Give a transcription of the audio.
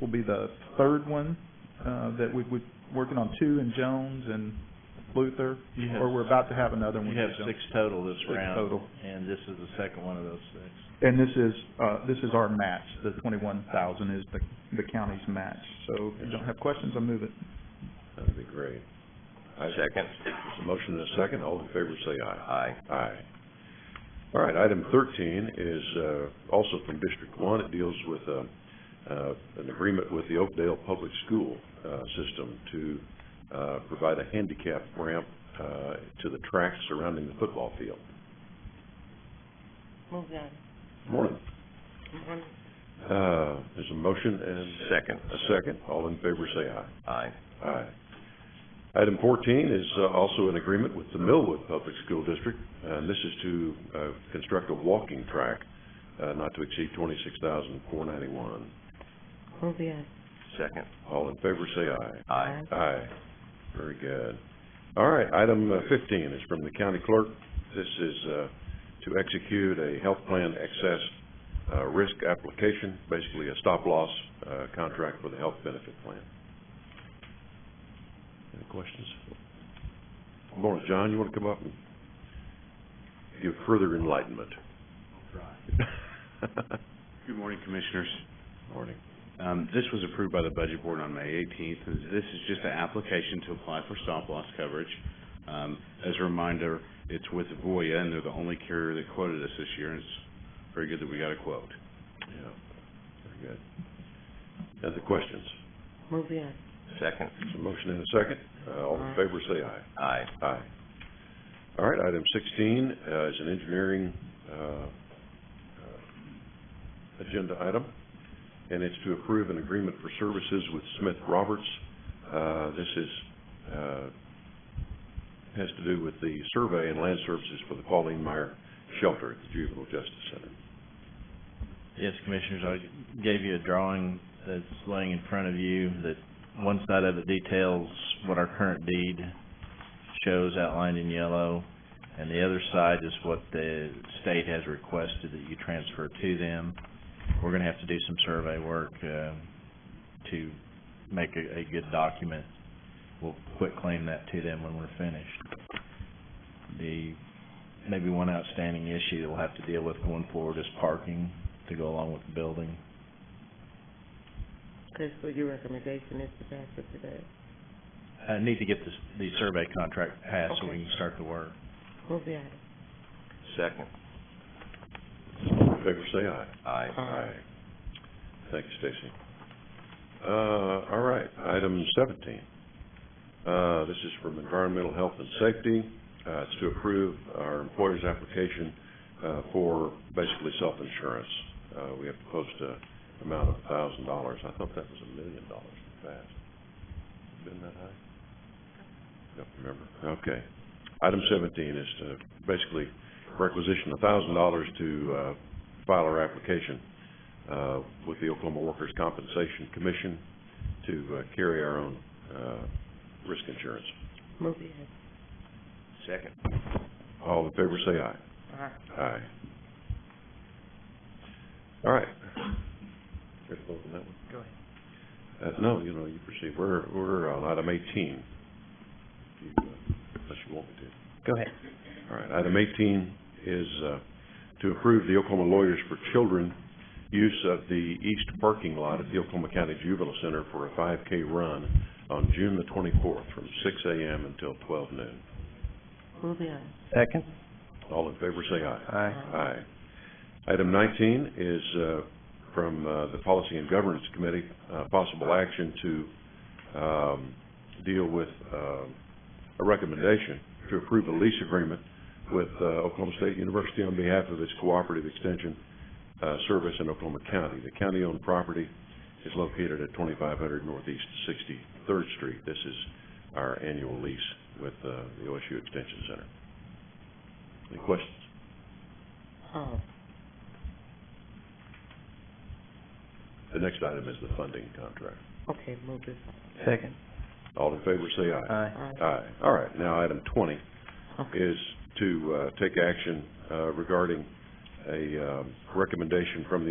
will be the third one, uh, that we, we're working on two in Jones and Luther, You have- or we're about to have another one. You have in Jones. six total this Six round. total. And this is the second one of those six. And this is, uh, this is our match, the twenty-one thousand is the, the county's match, so if you don't have questions, I move it. That'd be great. Second. There's a motion and a second, all in favor say aye. Aye. Aye. All right, item thirteen is, uh, also from District One, it deals with, uh, uh, an agreement with the Oakdale Public School, uh, system to, uh, provide a handicap ramp, uh, to the tracks surrounding the football field. Move that. Morning. Mhm. Uh, there's a motion and. Second. A second, all in favor say aye. Aye. Aye. Item fourteen is uh, also an agreement with the Millwood Public School District, and this is to, uh, construct a walking track, uh, not to exceed twenty-six thousand four ninety-one. Move that. Second. All in favor, say Aye. aye. Aye. Very good. All right, item uh, fifteen is from the county clerk. This is, uh, to execute a health plan excess, uh, risk application, basically a stop-loss, uh, contract for the health benefit plan. Any questions? Morning, John, you wanna come up and give further enlightenment? Good morning, Commissioners. Morning. Um, This was approved by the Budget Board on May 18th. This is just an application to apply for stop-loss coverage. Um, As a reminder, it's with Voya, and they're the only carrier that quoted us this year, and it's very good that we got a quote. Yeah, very good. Other questions? Move that. Second. There's a motion and a second. Uh, all in favor, say aye. Aye. Aye. All right, item sixteen, uh, is an engineering, uh, uh, agenda item, and it's to approve an agreement for services with Smith Roberts. Uh, this is, uh, has to do with the survey and land services for the Pauline Meyer Shelter at the Juvenile Justice Center. Yes, Commissioners, I gave you a drawing that's laying in front of you that one side of it details what our current deed shows outlined in yellow, and the other side is what the state has requested that you transfer to them. We're gonna have to do some survey work, uh, to make a, a good document. We'll quit claim that to them when we're finished. The, maybe one outstanding issue that we'll have to deal with going forward is parking to go along with the building. Okay, so your recommendation is to pass it today. I need to get this, the survey contract passed so we can start the work. Move that. Second. All in favor, say aye. Aye. Aye. Thank you, Stacy. Uh, all right, item seventeen. Uh, this is from Environmental Health and Safety. Uh, it's to approve our employer's application, uh, for basically self-insurance. Uh, we have to post a amount of a thousand dollars. I thought that was a million dollars in the past. Been that high? Don't remember. Okay. Item seventeen is to basically requisition a thousand dollars to, uh, file our application uh, with the Oklahoma Workers' Compensation Commission to uh, carry our own uh, risk insurance. Move that. Second. All in favor, say aye. Aye. Aye. All right. There's a vote on that one. Go ahead. Uh, No, you know, you proceed. We're, we're on item eighteen. If you, uh, Unless you want me to. Go ahead. All right, item eighteen is, uh, to approve the Oklahoma Lawyers for Children use of the east parking lot at the Oklahoma County Juvenile Center for a five K run on June the twenty-fourth from six AM until twelve noon. Move that. Second. All in favor, say aye. Aye. Aye. Item nineteen is, uh, from, uh, the Policy and Governance Committee, uh, possible action to, um, deal with, uh, a recommendation to approve a lease agreement with, uh, Oklahoma State University on behalf of its cooperative extension, uh, service in Oklahoma County. The county-owned property is located at twenty-five hundred Northeast Sixty-third Street. This is our annual lease with, uh, the OSU Extension Center. Any questions? Oh, The next item is the funding contract. okay, move this. Second. All in favor, say aye. Aye. Aye. Aye. All right, now item twenty Okay. is to, uh, take action, uh, regarding a, um, recommendation from the